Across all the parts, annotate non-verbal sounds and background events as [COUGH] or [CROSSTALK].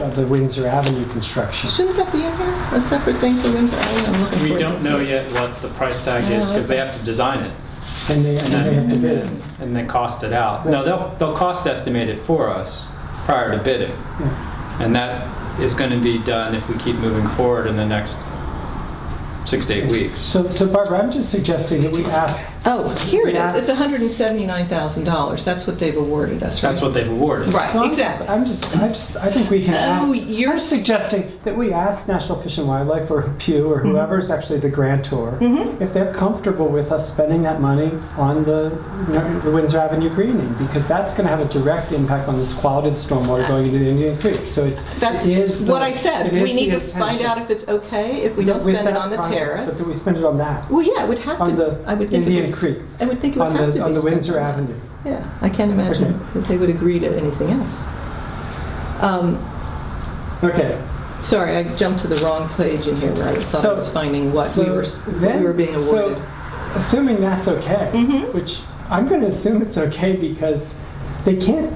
of the Windsor Avenue construction. Shouldn't that be in here, a separate thing for Windsor Avenue? I'm looking We for it. don't know yet what the price tag is because they have to design it And they, and they have to and bid it. then, and then cost it out. No, they'll, they'll cost estimate it for us prior to bidding. And that is going to be done if we keep moving forward in the next six to eight weeks. So, so Barbara, I'm just suggesting that we ask, Oh, here it Yeah. is. It's $179,000. That's what they've awarded us, right? That's what they've awarded. so Right, I'm just, exactly. I'm just, I just, I think we can ask. Oh, you're I'm suggesting that we ask National Fish and Wildlife or Pew or Mm-hmm. whoever's actually the grantor, if they're comfortable with us spending that money on the, you know, the Windsor Avenue greening, because that's gonna have a direct impact on this quality of stormwater going into the Indian Creek, so it's. it That's is the- what I said. it is We need the to find intention. out if it's okay, if we don't With spend it that on the project, But terrace. do we spend it on that, Well, yeah, it would have on to, the I would think Indian it would, Creek, I would think it would on have to be the, on the spent Windsor on that. Avenue? Yeah, I can't imagine that they would agree to anything else. Um, Okay, Sorry, I jumped to the wrong page in here where I thought I So- was finding what we so were, what then- we were being so awarded. assuming that's okay, Mhm. which I'm going to assume it's okay because they can't.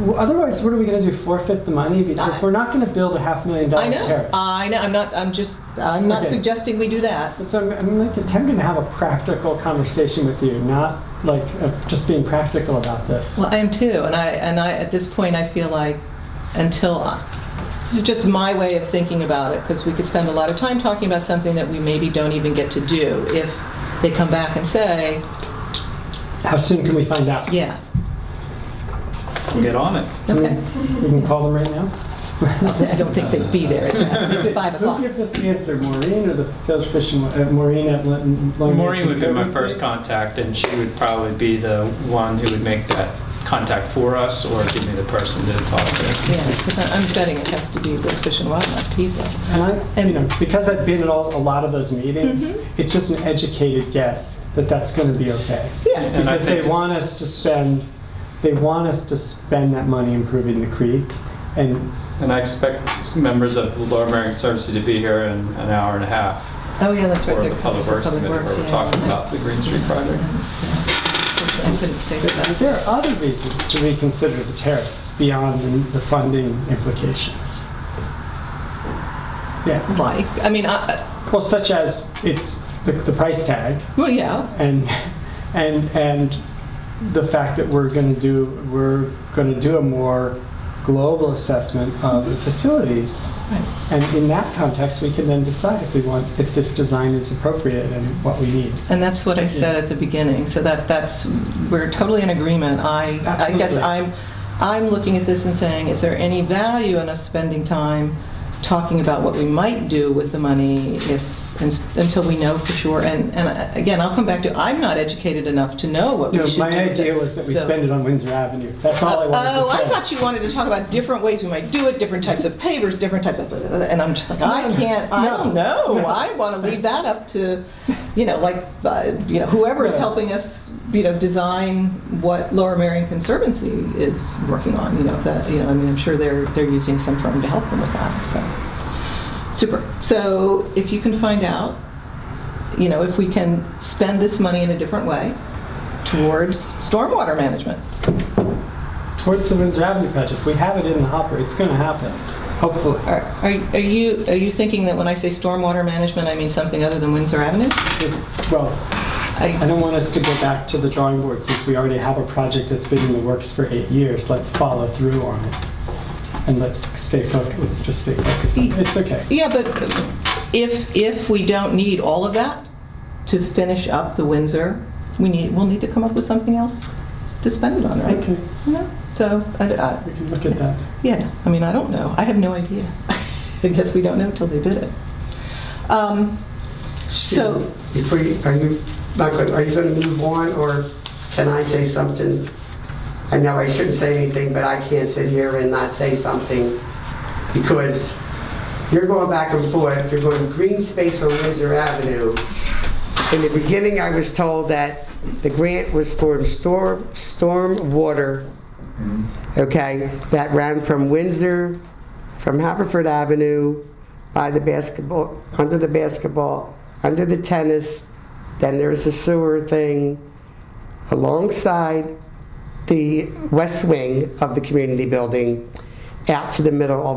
w- Otherwise, what are we going to do? Forfeit the money because I- we're not going to build a half million dollar I know. Uh, terrace. I know. I'm not. I'm just. I'm not Okay. suggesting we do that. so I'm, I'm like attempting to have a practical conversation with you, not like uh, just being practical about this. Well, I am too, and I and I at this point I feel like until I, this is just my way of thinking about it because we could spend a lot of time talking about something that we maybe don't even get to do if they come back and say, How soon can we find out? yeah, We'll get on it. Can okay. we, we can call them right now. I don't think they'd be there. at that. It's five o'clock. Who gives us the answer, Maureen or the fish fishing? Uh, Maureen at Long Long Bay Maureen would be my Conservancy? first contact and she would probably be the one who would make that contact for us or give me the person to talk to. Yeah, because I'm betting it has to be the Fish and Wildlife people. And I, you know, because I've been at all, a lot of those meetings, it's just an educated guess that that's going to be okay. Yeah. And I Because they think- want us to spend, they want us to spend that money improving the creek. And And I expect members of the Lower Merion Conservancy to be here in an hour and a half Oh, yeah, that's right. for they're- the Public Works Committee where we're yeah. talking about the Green Street project. I couldn't stay with that. there are other reasons to reconsider the tariffs beyond the- the funding implications. Yeah, Like, I mean, I, well, such as it's the, the price tag. well, yeah, and and and the fact that we're going to do we're going to do a more global assessment of the facilities and in that context we can then decide if we want if this design is appropriate and what we need and that's what I said at the beginning. So that that's we're totally in agreement. I I guess Absolutely. I'm I'm looking at this and saying, is there any value in us spending time talking about what we might do with the money if ins- until we know for sure? And and I- again, I'll come back to I'm not educated enough to know what no we should my do. with idea it. was that we So- spend it on windsor avenue that's all i wanted Oh, to say I thought you wanted to talk about different ways we might do it, different types of pavers, different types of, blah, blah, blah, and I'm just like, I can't, I No. don't know. I want to leave that up to, you know, like, uh, you know, whoever is Yeah. helping us, you know, design what Lower Marion Conservancy is working on, you know, if that, you know, I mean, I'm sure they're, they're using some firm to help them with that, so. Super. So if you can find out, you know, if we can spend this money in a different way towards stormwater management. towards the windsor avenue project we have it in the hopper it's going to happen hopefully Are are you, are you thinking that when I say stormwater management, I mean something other than Windsor Avenue? This- well i I- don't want us to go back to the drawing board since we already have a project that's been in the works for eight years let's follow through on it and let's stay focused let's just stay focused on it. it's okay Yeah, but if, if we don't need all of that to finish up the Windsor, we need, we'll need to come up with something else to spend it on, right? okay No? So, I- I- we can look at that yeah, I mean, I don't know. I have no idea. [LAUGHS] I guess we don't know till they bid it. Um, So, Before you, are you, not good, are you going to move on, or can I say something? I know I shouldn't say anything, but I can't sit here and not say something, because you're going back and forth, you're going green space on Windsor Avenue. In the beginning, I was told that the grant was for storm, storm water, okay, that ran from Windsor, from Haverford Avenue, by the basketball, under the basketball, under the tennis, then there's a sewer thing alongside the west wing of the community building, out to the middle of